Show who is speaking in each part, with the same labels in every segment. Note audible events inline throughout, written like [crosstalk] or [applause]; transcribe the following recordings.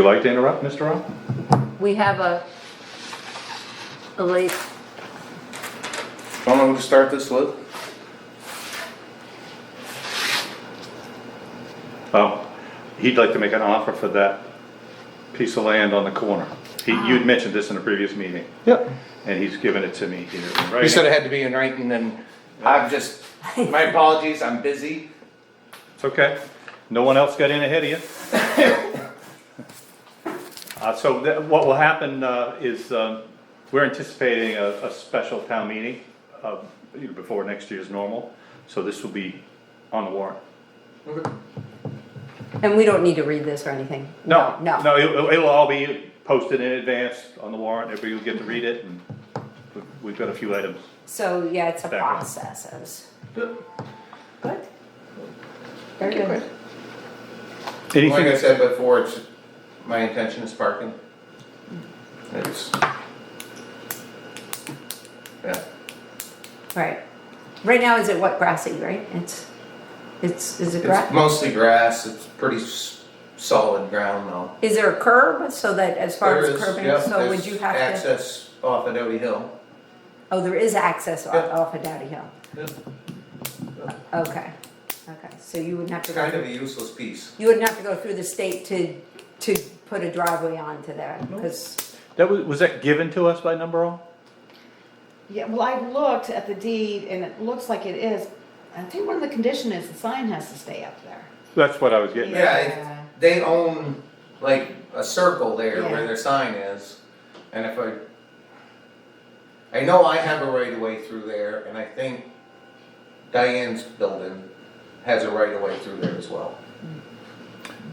Speaker 1: you like to interrupt, Mr. Roth?
Speaker 2: We have a, a late,
Speaker 3: Don't know who to start this with.
Speaker 1: Oh, he'd like to make an offer for that piece of land on the corner. He, you'd mentioned this in a previous meeting,
Speaker 4: Yep.
Speaker 1: and he's given it to me here in
Speaker 3: You said
Speaker 1: writing.
Speaker 3: it had to be in writing and I've just, my apologies, I'm busy.
Speaker 1: It's okay, no one else got in ahead
Speaker 3: [laughs]
Speaker 1: of you. Uh, so that, what will happen, uh, is, um, we're anticipating a, a special town meeting, uh, you know, before next year's normal, so this will be on the warrant.
Speaker 2: and we don't need to read this or anything.
Speaker 1: No,
Speaker 2: No.
Speaker 1: no, it'll, it'll all be posted in advance on the warrant, everybody will get to read it, and we- we've got a few items.
Speaker 2: So, yeah, it's a
Speaker 1: That one.
Speaker 2: process of. Good. Very good.
Speaker 3: Like I
Speaker 1: Anything,
Speaker 3: said before, it's, my intention is parking. It's. Yeah,
Speaker 2: Right. Right now, is it what grassy, right? It's, it's, is it
Speaker 3: it's
Speaker 2: grass?
Speaker 3: mostly grass, it's pretty s- solid ground now.
Speaker 2: Is there a curb so that as far
Speaker 3: There
Speaker 2: as
Speaker 3: is-
Speaker 2: curbing,
Speaker 3: yeah,
Speaker 2: so would
Speaker 3: there's
Speaker 2: you have to?
Speaker 3: Access off of Doty Hill.
Speaker 2: Oh, there is access off,
Speaker 3: Yeah.
Speaker 2: off of Dowdy Hill. Okay, okay. So you wouldn't have to
Speaker 3: It's
Speaker 2: go,
Speaker 3: kind of a
Speaker 2: through-
Speaker 3: useless piece.
Speaker 2: you wouldn't have to go through the state to, to put a driveway onto there, because.
Speaker 1: that was, was that given to us by Number All?
Speaker 5: Yeah, well, I looked at the deed and it looks like it is, I think one of the condition is the sign has to stay up there.
Speaker 1: That's what I was getting at.
Speaker 3: Yeah,
Speaker 5: Yeah.
Speaker 3: it- they own like a circle there
Speaker 5: Yeah.
Speaker 3: where their sign is, and if I. I know I have a right of way through there, and I think Diane's building has a right of way through there as well.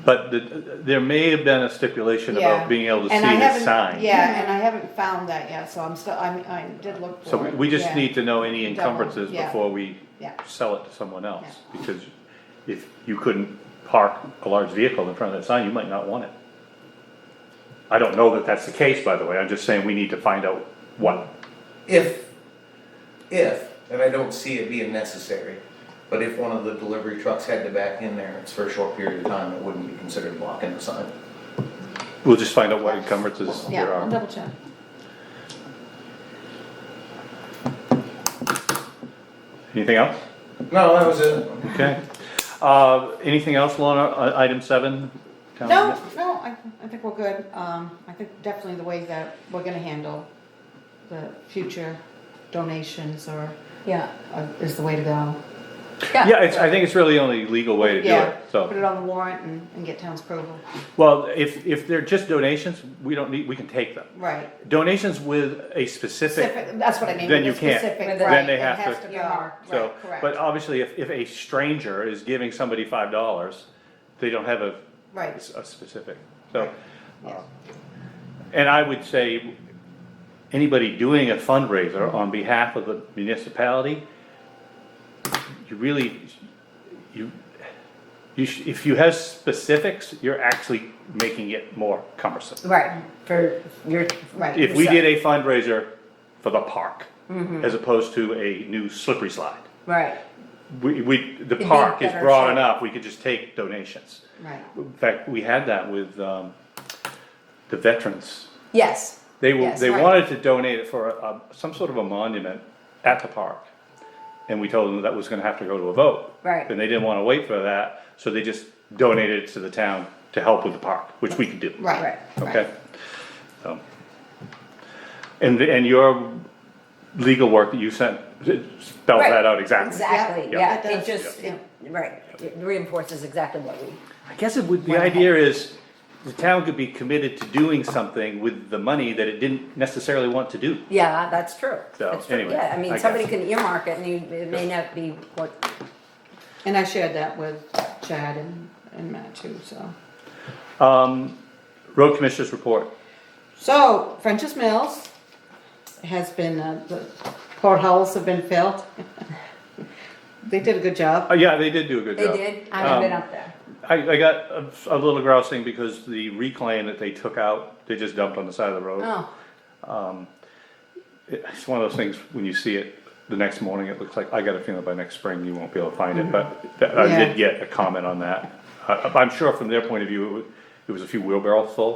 Speaker 1: But the- there may have been a stipulation
Speaker 5: Yeah.
Speaker 1: about being able to see
Speaker 5: And I
Speaker 1: the
Speaker 5: haven't-
Speaker 1: sign.
Speaker 5: Yeah, and I haven't found that yet, so I'm still, I, I did look for
Speaker 1: So we-
Speaker 5: it,
Speaker 1: we just
Speaker 5: yeah,
Speaker 1: need to know any
Speaker 5: Double,
Speaker 1: encumbrances
Speaker 5: yeah.
Speaker 1: before we
Speaker 5: Yeah.
Speaker 1: sell it to someone else. Because if you couldn't park a large vehicle in front of that sign, you might not want it. I don't know that that's the case, by the way, I'm just saying we need to find out what.
Speaker 3: If, if, and I don't see it being necessary, but if one of the delivery trucks had to back in there, it's for a short period of time, it wouldn't be considered blocking the sign.
Speaker 1: We'll just find out what encumbrances
Speaker 5: Yeah,
Speaker 1: there
Speaker 5: I'll
Speaker 1: are.
Speaker 5: double check.
Speaker 1: Anything else?
Speaker 3: No, that was it.
Speaker 1: Okay. Uh, anything else, Lorna, Uh, item seven? town
Speaker 5: No, no, I, I think we're good, um, I think definitely the way that we're gonna handle the future donations or,
Speaker 2: Yeah.
Speaker 5: uh, is the way to go.
Speaker 1: Yeah, it's, I think it's really the only legal way to do
Speaker 5: Yeah,
Speaker 1: it,
Speaker 5: put
Speaker 1: so.
Speaker 5: it on the warrant and, and get town's approval,
Speaker 1: Well, if, if they're just donations, we don't need, we can take them.
Speaker 5: right.
Speaker 1: Donations with a specific,
Speaker 5: Specific, that's what I mean.
Speaker 1: Then
Speaker 5: with
Speaker 1: you
Speaker 5: the
Speaker 1: can't.
Speaker 5: specific,
Speaker 2: Then
Speaker 5: right,
Speaker 1: they
Speaker 5: it
Speaker 1: have
Speaker 5: has
Speaker 1: to-
Speaker 5: be
Speaker 2: Yeah.
Speaker 5: marked,
Speaker 1: so,
Speaker 5: right, correct.
Speaker 1: but obviously if, if a stranger is giving somebody five dollars, they don't have a,
Speaker 5: Right,
Speaker 1: a specific, so. uh,
Speaker 5: yes.
Speaker 1: And I would say, anybody doing a fundraiser on behalf of the municipality, you really, you, you, sh- if you have specifics, you're actually making it more cumbersome.
Speaker 2: Right, for your,
Speaker 5: Right.
Speaker 1: If we did a fundraiser for the park,
Speaker 2: Mm-hmm.
Speaker 1: as opposed to a new slippery slide,
Speaker 2: right,
Speaker 1: we, we, the
Speaker 2: be
Speaker 1: park is
Speaker 2: better
Speaker 1: broad
Speaker 2: shape.
Speaker 1: enough, we could just take donations.
Speaker 5: Right,
Speaker 1: In fact, we had that with, um, the veterans
Speaker 2: yes.
Speaker 1: They were,
Speaker 2: Yes,
Speaker 1: they
Speaker 2: right.
Speaker 1: wanted to donate it for a, a- some sort of a monument at the park. And we told them that was gonna have to go to a vote.
Speaker 2: Right.
Speaker 1: And they didn't wanna wait for that, so they just donated it to the town to help with the park, which we could do.
Speaker 5: right.
Speaker 2: Right.
Speaker 5: right.
Speaker 1: Okay? So. And, the- and your legal work that you sent spelled
Speaker 2: Right.
Speaker 1: that out exactly.
Speaker 2: Exactly,
Speaker 1: Yeah.
Speaker 2: yeah,
Speaker 5: It
Speaker 2: it
Speaker 5: does,
Speaker 2: just,
Speaker 5: yeah.
Speaker 2: it- right, it reinforces exactly what we,
Speaker 1: I guess it would, the idea is, the town could be committed to doing something with the money that it didn't necessarily want to do.
Speaker 2: yeah, that's true.
Speaker 1: So,
Speaker 2: That's true.
Speaker 1: anyway,
Speaker 2: Yeah, I
Speaker 1: I
Speaker 2: mean,
Speaker 1: guess.
Speaker 2: somebody can earmark it and you, it may not be what,
Speaker 5: And I shared that with Chad and, and Matt too, so.
Speaker 1: Um, road commissioners report.
Speaker 5: So, French's Mills has been, uh, the portholes have been filled. [laughs] They did a good
Speaker 1: Uh,
Speaker 5: job.
Speaker 1: yeah, they did do a good
Speaker 2: they
Speaker 1: job. Um,
Speaker 2: did, I haven't been up there.
Speaker 1: I, I got a, a little grousing because the reclaim that they took out, they just dumped on the side of the road.
Speaker 2: Oh,
Speaker 1: It's one of those things when you see it the next morning, it looks like I got a feeling by next spring you won't be able to find it. But th- I
Speaker 5: Yeah.
Speaker 1: did get a comment on that. I, I'm sure from their point of view, it was, it was a few wheelbarrows full.